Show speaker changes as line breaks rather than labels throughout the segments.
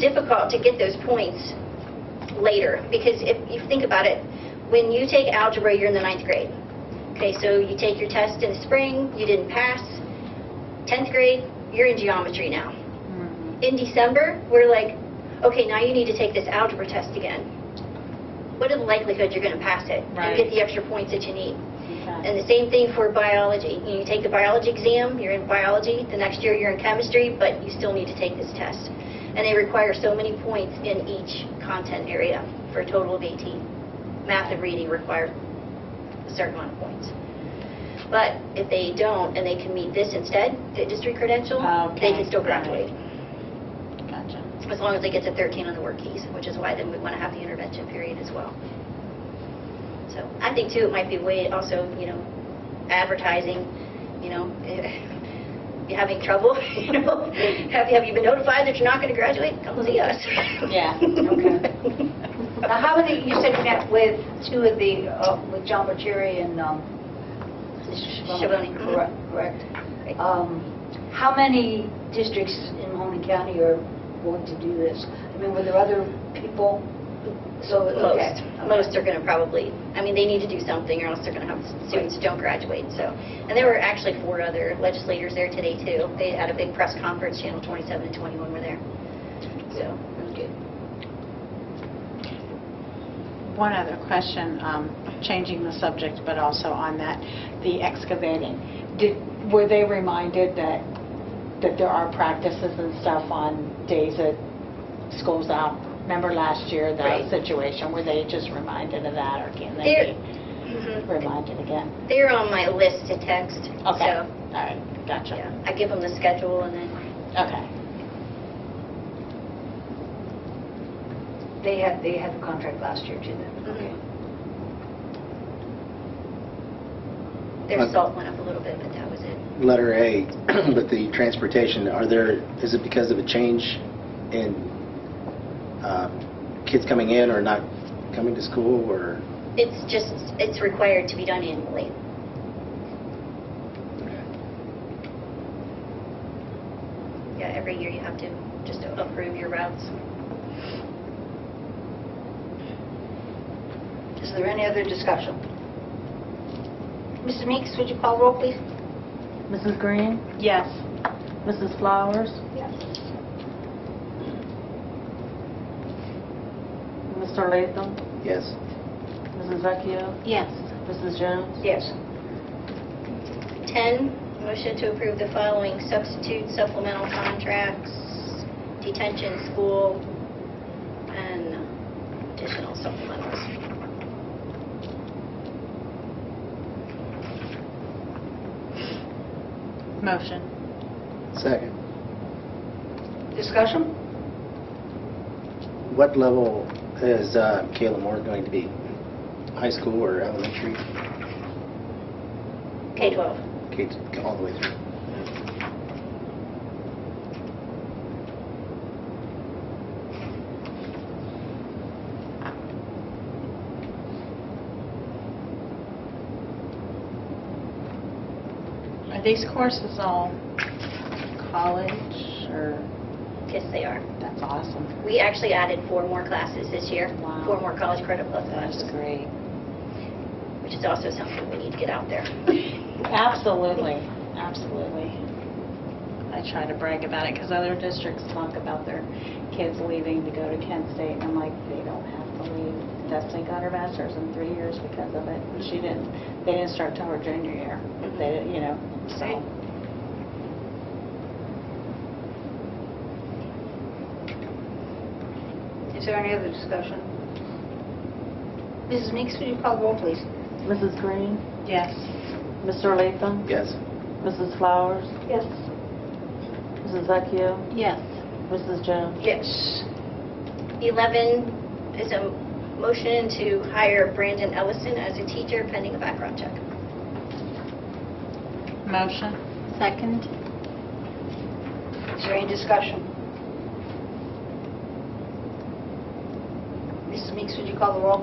difficult to get those points later, because if you think about it, when you take algebra, you're in the ninth grade. Okay, so you take your test in the spring, you didn't pass. 10th grade, you're in geometry now. In December, we're like, okay, now you need to take this algebra test again. What are the likelihood you're going to pass it and get
Right.
the extra points that you need?
Okay.
And the same thing for biology. You know, You take the biology exam, you're in biology, the next year you're in chemistry, but you still need to take this test. And they require so many points in each content area for a total of 18. Math and reading require a certain amount of points. But if they don't, and they can meet this instead, the district credential, they
Okay,
can still
right.
graduate,
Gotcha.
as long as they get to 13 on the work keys, which is why then we want to have the intervention period as well. So I think too, it might be way also, you know, advertising, you know, you having trouble, you know, have you, have you been notified that you're not going to graduate? Come see us.
Yeah, okay.
Now, how many, you said you met with two of the, uh, with John Butcheri and um, Mr. Shaboni,
Shaboni.
correct?
Right.
correct. Um, How many districts in Mahoney County are going to do this? I mean, were there other people? So, okay.
Most, most are going to probably, I mean, they need to do something or else they're going to have students who don't graduate, so. And there were actually four other legislators there today too. They had a big press conference, Channel 27 and 21 were there. So, it was good.
One other question, um, changing the subject, but also on that, the excavating. Did, were they reminded that, that there are practices and stuff on days that school's out? Remember last year,
Right.
that situation? Were they just reminded of that, or can
They're-
they be
Mhm.
reminded again?
They're on my list to text,
Okay, all
so,
right,
yeah,
gotcha.
I give them the schedule and then,
Okay.
They had, they had the contract last year, too, then?
Mhm. their salt went up a little bit, but that was it.
letter A, but the transportation, are there, is it because of a change in um, kids coming in or not coming to school, or?
It's just, it's required to be done annually. Yeah, every year you have to just approve your routes.
Is there any other discussion? Mr. Meeks, would you call roll, please?
Mrs. Green?
Yes.
Mrs. Flowers?
Yes.
Mr. Latham?
Yes.
Mrs. Vecchio?
Yes.
Mrs. Jones?
Yes.
10, motion to approve the following substitute supplemental contracts, detention school, and additional supplementals.
Motion.
Second.
Discussion?
What level is uh, Kayla Moore going to be? High school or elementary?
K-12.
Kids all the way through?
Are these courses all college, or,
Yes, they are.
that's awesome.
We actually added four more classes this year,
Wow.
four more college credit plus
That's
classes,
great.
which is also something we need to get out there.
Absolutely, absolutely. I try to brag about it because other districts talk about their kids leaving to go to Kent State, and I'm like, they don't have to leave. Destiny got her master's in three years because of it, and she didn't, they didn't start till her junior year. They, you know,
Right.
so.
Is there any other discussion? Mrs. Meeks, would you call the roll, please?
Mrs. Green?
Yes.
Mr. Latham?
Yes.
Mrs. Flowers?
Yes.
Mrs. Vecchio?
Yes.
Mrs. Jones?
Yes.
11 is a motion to hire Brandon Ellison as a teacher pending a background check.
Motion. Second.
Is there any discussion? Mrs. Meeks, would you call the roll?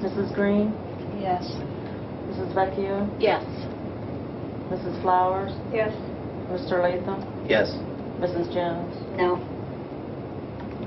Mrs. Green?
Yes.
Mrs. Vecchio?
Yes.
Mrs. Flowers?
Yes.
Mr. Latham?
Yes.
Mrs. Jones?
No.